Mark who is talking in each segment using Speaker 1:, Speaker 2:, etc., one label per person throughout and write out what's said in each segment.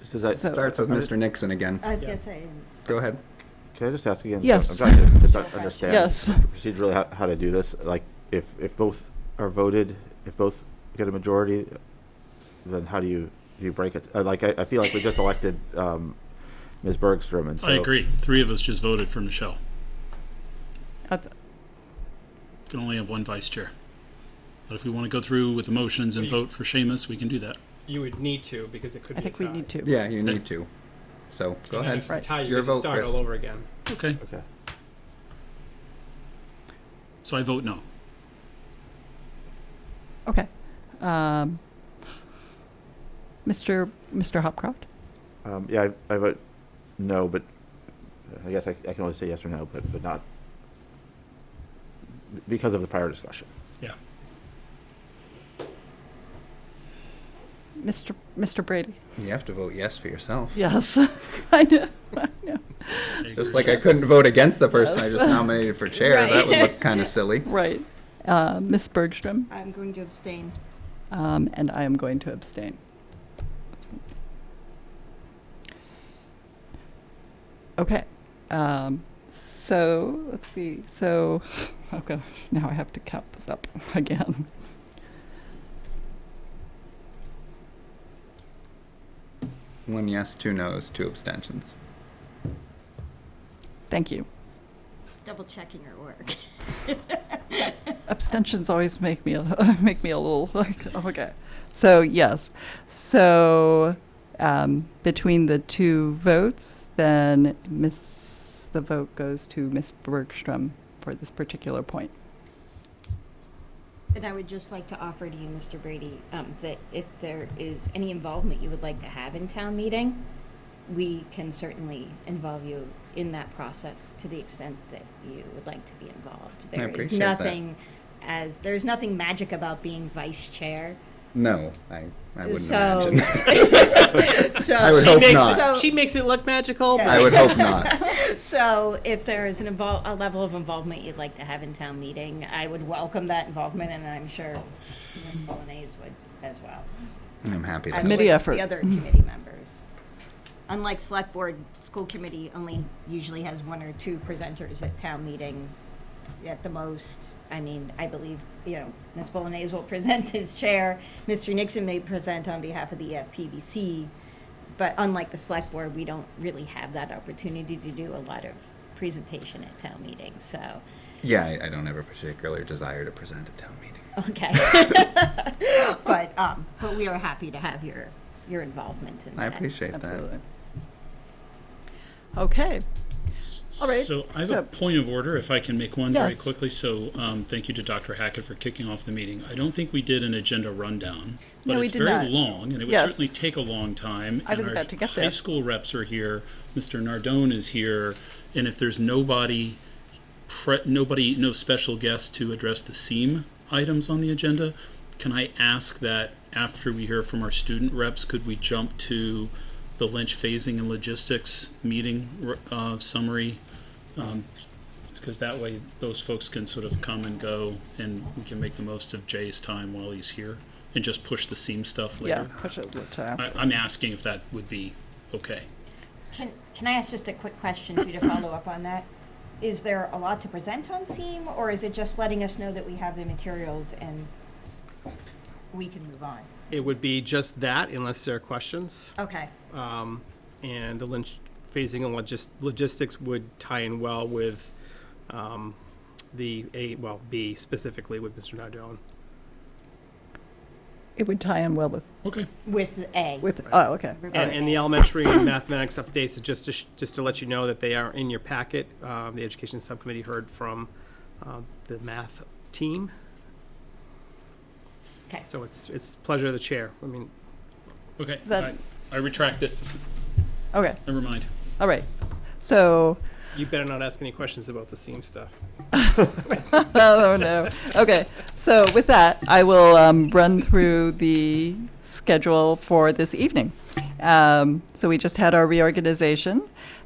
Speaker 1: Because it
Speaker 2: So-
Speaker 1: starts with Mr. Nixon again.
Speaker 3: I was gonna say,
Speaker 1: Go ahead.
Speaker 4: Can I just ask again? So
Speaker 2: Yes.
Speaker 4: I'm trying to just un- understand.
Speaker 2: Yes.
Speaker 4: Procedurally, how, how to do this, like, if, if both are voted, if both get a majority, then how do you, do you break it? Uh, Like, I, I feel like we just elected, um, Ms. Bergstrom, and so.
Speaker 5: I agree. Three of us just voted for Michelle.
Speaker 2: I th-
Speaker 5: Can only have one vice chair. But if we want to go through with the motions and vote for Seamus, we can do that.
Speaker 6: You would need to because it could
Speaker 2: I
Speaker 6: be
Speaker 2: think
Speaker 6: a
Speaker 2: we
Speaker 6: tie.
Speaker 2: need to.
Speaker 1: Yeah, you need to. So go
Speaker 6: And
Speaker 1: ahead.
Speaker 6: If
Speaker 2: Right.
Speaker 6: it's a tie,
Speaker 1: It's
Speaker 6: you
Speaker 1: your
Speaker 6: could just
Speaker 1: vote,
Speaker 6: start
Speaker 1: Chris.
Speaker 6: all over again.
Speaker 5: Okay,
Speaker 4: Okay.
Speaker 5: so I vote no.
Speaker 2: Okay. Um, Mr. Mr. Hopcroft?
Speaker 4: Um, yeah, I, I vote no, but I guess I, I can only say yes or no, but, but not because of the prior discussion.
Speaker 5: Yeah.
Speaker 2: Mr. Mr. Brady?
Speaker 1: You have to vote yes for yourself.
Speaker 2: Yes. I know. I know.
Speaker 1: Just like I couldn't vote against the person I just nominated for chair. That would
Speaker 3: Right.
Speaker 1: look kind of silly.
Speaker 2: Right. Uh, Ms. Bergstrom?
Speaker 3: I'm going to abstain.
Speaker 2: Um, and I am going to abstain. Okay. Um, so let's see. So, oh gosh, now I have to count this up again.
Speaker 1: One yes, two no's, two abstentions.
Speaker 2: Thank you.
Speaker 3: Double checking your work.
Speaker 2: Abstentions always make me a, make me a little like oh, okay. So yes, so um, between the two votes, then Miss the vote goes to Miss Bergstrom for this particular point.
Speaker 3: And I would just like to offer to you, Mr. Brady, um, that if there is any involvement you would like to have in town meeting, we can certainly involve you in that process to the extent that you would like to be involved. There is
Speaker 1: appreciate that.
Speaker 3: nothing as, there's nothing magic about being vice chair.
Speaker 1: No, I, I wouldn't
Speaker 3: So-
Speaker 1: imagine.
Speaker 3: So
Speaker 1: I would hope
Speaker 6: makes,
Speaker 1: not.
Speaker 6: She makes it look magical.
Speaker 1: I would hope not.
Speaker 3: So if there is an invol a level of involvement you'd like to have in town meeting, I would welcome that involvement, and I'm sure Ms. Bolanese would as well.
Speaker 1: I'm happy.
Speaker 3: as
Speaker 1: That
Speaker 2: Committee
Speaker 3: would
Speaker 2: effort.
Speaker 3: The other committee members. Unlike select board, school committee only usually has one or two presenters at town meeting at the most. I mean, I believe, you know, Ms. Bolanese will present as chair, Mr. Nixon may present on behalf of the EFPBC. But unlike the select board, we don't really have that opportunity to do a lot of presentation at town meetings, so,
Speaker 1: Yeah, I, I don't have a particular desire to present at town meeting.
Speaker 3: okay. But, um, but we are happy to have your, your involvement in
Speaker 1: I
Speaker 3: that.
Speaker 1: appreciate that.
Speaker 2: Absolutely. Okay. All right,
Speaker 5: So I have
Speaker 2: so-
Speaker 5: a point of order, if I can make one very
Speaker 2: Yes.
Speaker 5: quickly. So um, thank you to Dr. Hackett for kicking off the meeting. I don't think we did an agenda rundown,
Speaker 2: No,
Speaker 5: but
Speaker 2: we
Speaker 5: it's
Speaker 2: did
Speaker 5: very
Speaker 2: not.
Speaker 5: long, and it would
Speaker 2: Yes.
Speaker 5: certainly take a long time.
Speaker 2: I was
Speaker 5: and our
Speaker 2: about to get
Speaker 5: High
Speaker 2: there.
Speaker 5: school reps are here, Mr. Nardone is here, and if there's nobody, pre- nobody, no special guest to address the SEAM items on the agenda, can I ask that after we hear from our student reps, could we jump to the Lynch phasing and logistics meeting uh, summary? Because that way, those folks can sort of come and go, and we can make the most of Jay's time while he's here, and just push the seam stuff
Speaker 2: Yeah.
Speaker 5: later.
Speaker 2: Push it uh, to
Speaker 5: I, I'm asking if that would be okay.
Speaker 3: Can, can I ask just a quick question too to follow up on that? Is there a lot to present on SEAM, or is it just letting us know that we have the materials and we can move on?
Speaker 6: It would be just that unless there are questions.
Speaker 3: Okay,
Speaker 6: Um, and the Lynch phasing and logis- logistics would tie in well with um, the A, well, B specifically with Mr. Nardone.
Speaker 2: It would tie in well with
Speaker 5: Okay.
Speaker 3: with A.
Speaker 2: with. Oh, okay.
Speaker 6: And, and the elementary and mathematics updates is just to, sh- just to let you know that they are in your packet. Um, the education subcommittee heard from uh, the math team.
Speaker 3: Okay.
Speaker 6: So it's it's pleasure of the chair. I mean,
Speaker 5: Okay.
Speaker 2: That-
Speaker 5: I, I retract it.
Speaker 2: Okay.
Speaker 5: Never mind.
Speaker 2: All right. So.
Speaker 6: you better not ask any questions about the SEAM stuff.
Speaker 2: oh no. Okay. So with that, I will um, run through the schedule for this evening. Um, so we just had our reorganization.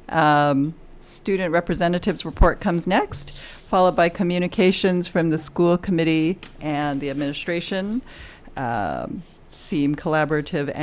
Speaker 2: Um, student representatives report comes next, followed by communications from the school committee and the administration. Um, seem collaborative